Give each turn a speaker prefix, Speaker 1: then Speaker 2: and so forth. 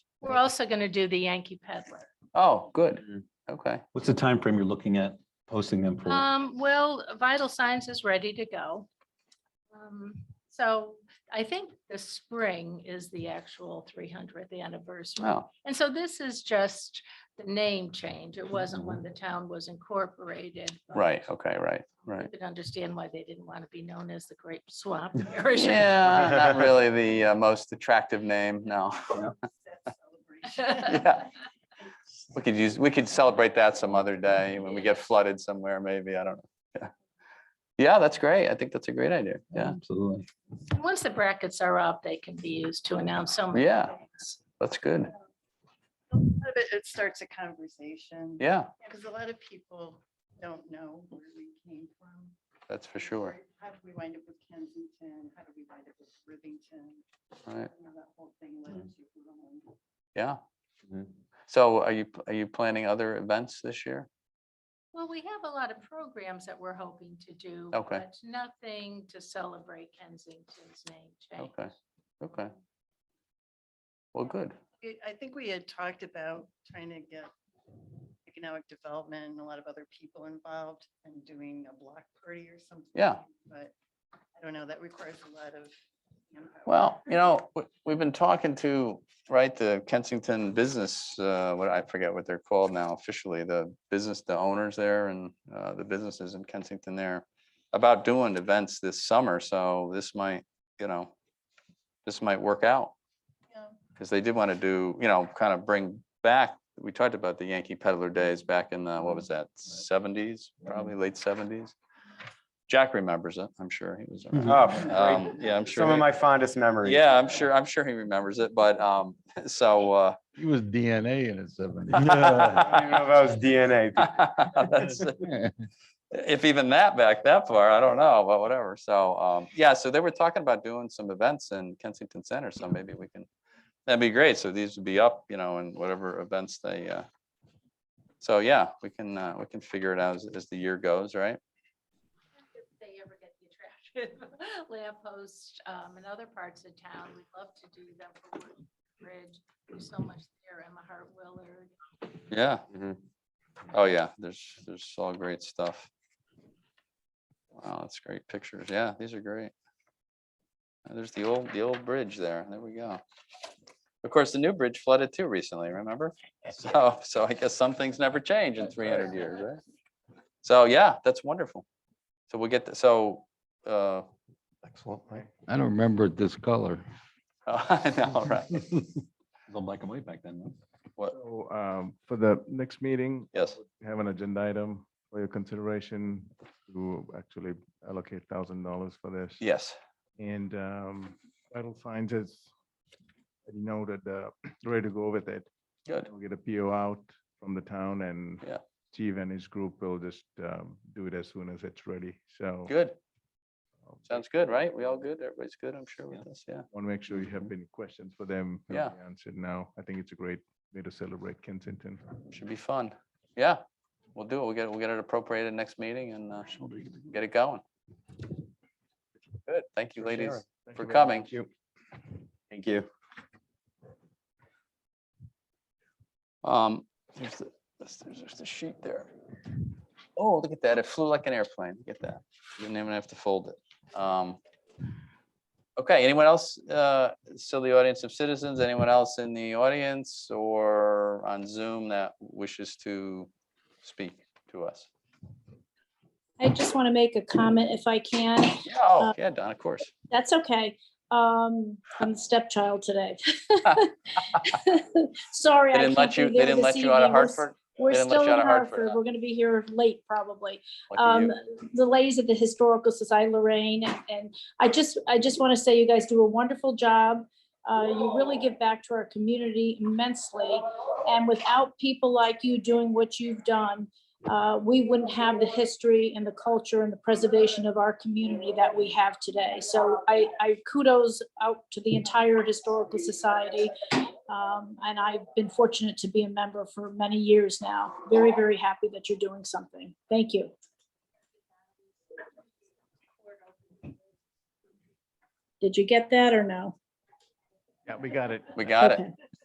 Speaker 1: We're also going to do the Yankee Peddler.
Speaker 2: Oh, good.
Speaker 3: Mhm.
Speaker 2: Okay.
Speaker 4: What's the time frame you're looking at posting them
Speaker 5: Uh,
Speaker 4: for?
Speaker 1: Um, well, Vital Signs is ready to go. Um, So I think the spring is the actual three hundredth anniversary.
Speaker 2: Oh,
Speaker 1: And so this is just the name change. It wasn't when the town was incorporated. but
Speaker 2: right. Okay, right, right.
Speaker 1: You could understand why they didn't want to be known as the Great Swamp Parish.
Speaker 2: Yeah, not really the uh, most attractive name, no. Yeah. We could use, we could celebrate that some other day when we get flooded somewhere, maybe. I don't know. Yeah. Yeah, that's great. I think that's a great idea. Yeah,
Speaker 4: Absolutely.
Speaker 1: And Once the brackets are up, they can be used to announce so many
Speaker 2: Yeah.
Speaker 1: things.
Speaker 2: that's good.
Speaker 6: A lot of It it starts a conversation.
Speaker 2: Yeah,
Speaker 6: Because a lot of people don't know where we came from.
Speaker 2: that's for sure.
Speaker 6: Or How did we wind up with Kensington? How did we wind up with Rivington?
Speaker 2: Right,
Speaker 6: You know, That whole thing
Speaker 2: Mm.
Speaker 6: led us to Rome.
Speaker 2: yeah.
Speaker 4: Mhm.
Speaker 2: So are you, are you planning other events this year?
Speaker 1: Well, we have a lot of programs that we're hoping to do.
Speaker 2: Okay.
Speaker 1: but Nothing to celebrate Kensington's name change.
Speaker 2: Okay, okay. Well, good.
Speaker 6: We- I think we had talked about trying to get economic development and a lot of other people involved and doing a block party or something.
Speaker 2: Yeah.
Speaker 6: But I don't know, that requires a lot of. manpower.
Speaker 2: Well, you know, we- we've been talking to, right, the Kensington Business, uh, what I forget what they're called now officially, the business, the owners there and uh, the businesses in Kensington there about doing events this summer. So this might, you know, this might work out
Speaker 6: Yeah.
Speaker 2: because they did want to do, you know, kind of bring back, we talked about the Yankee Peddler days back in the, what was that, seventies, probably late seventies. Jack remembers it, I'm sure he was.
Speaker 4: Mm-hmm.
Speaker 2: around.
Speaker 7: Oh,
Speaker 2: Um,
Speaker 7: great.
Speaker 2: Yeah, I'm sure.
Speaker 7: Some of
Speaker 2: he-
Speaker 7: my fondest memories.
Speaker 2: yeah, I'm sure, I'm sure he remembers it, but, um, so, uh,
Speaker 8: He was DNA in his seventies.
Speaker 7: I don't even know if that was DNA.
Speaker 2: that's- if even that back that far, I don't know, but whatever. So, um, yeah, so they were talking about doing some events in Kensington Center, so maybe we can, that'd be great. So these would be up, you know, in whatever events they, uh, so yeah, we can, uh, we can figure it out as, as the year goes, right?
Speaker 1: If they ever get the attractive lamp posts um, in other parts of town, we'd love to do them for Wood Bridge. There's so much there, Emma Hart Willard.
Speaker 2: Yeah.
Speaker 3: Mhm.
Speaker 2: Oh, yeah, there's, there's all great stuff. Wow, that's great pictures. Yeah, these are great. Uh, There's the old, the old bridge there. There we go. Of course, the new bridge flooded too recently, remember? So, so I guess some things never change in three hundred years, right? So, yeah, that's wonderful. So we'll get, the- so, uh,
Speaker 7: Excellent, right?
Speaker 8: I don't remember it this color.
Speaker 2: I know, right,
Speaker 4: It was on black and white back then. no?
Speaker 9: So um, for the next meeting,
Speaker 2: yes,
Speaker 9: we have an agenda item for your consideration to actually allocate thousand dollars for this.
Speaker 2: yes,
Speaker 9: And um, vital signs is, you know, that uh, ready to go with it.
Speaker 2: good,
Speaker 9: We'll get a PO out from the town and
Speaker 2: Yeah.
Speaker 9: Steve and his group will just um, do it as soon as it's ready. So
Speaker 2: good.
Speaker 9: um,
Speaker 2: Sounds good, right? We all good? Everybody's good, I'm sure
Speaker 4: Yeah.
Speaker 2: with this, yeah.
Speaker 9: Want to make sure you have any questions for them. they'll
Speaker 2: Mm-hmm. Yeah.
Speaker 9: be Answered now. I think it's a great way to celebrate Kensington.
Speaker 2: Should be fun. Yeah, we'll do it. We'll get, we'll get it appropriated next meeting and uh, get it going. Good. Thank you, ladies.
Speaker 9: Thank
Speaker 2: for
Speaker 9: you very much.
Speaker 2: coming.
Speaker 9: Thank you.
Speaker 7: Thank you.
Speaker 2: Um, there's the, there's, there's the sheet there. Oh, look at that. It flew like an airplane. Look at that. You didn't even have to fold it. Um, Okay, anyone else, uh, still the audience of citizens? Anyone else in the audience or on Zoom that wishes to speak to us?
Speaker 5: I just want to make a comment if I can.
Speaker 2: Yeah, Oh, yeah, Don, of course.
Speaker 5: That's okay. Um, I'm the stepchild today. Sorry.
Speaker 2: They
Speaker 5: I
Speaker 2: didn't
Speaker 5: can't
Speaker 2: let you,
Speaker 5: be
Speaker 2: they
Speaker 5: there
Speaker 2: didn't
Speaker 5: this
Speaker 2: let you out of
Speaker 5: evening. We're s-
Speaker 2: Hartford?
Speaker 5: We're
Speaker 2: They didn't let
Speaker 5: still
Speaker 2: you out
Speaker 5: in
Speaker 2: of Hartford,
Speaker 5: Hartford.
Speaker 2: huh?
Speaker 5: We're going to be here late probably.
Speaker 2: Lucky
Speaker 5: Um,
Speaker 2: you.
Speaker 5: the ladies at the Historical Society Lorraine, and I just, I just want to say you guys do a wonderful job. Uh, you really give back to our community immensely, and without people like you doing what you've done, uh, we wouldn't have the history and the culture and the preservation of our community that we have today. So I, I kudos out to the entire Historical Society. Um, and I've been fortunate to be a member for many years now. Very, very happy that you're doing something. Thank you. Did you get that or no?
Speaker 9: Yeah, we got it.
Speaker 2: We got it.
Speaker 5: Okay.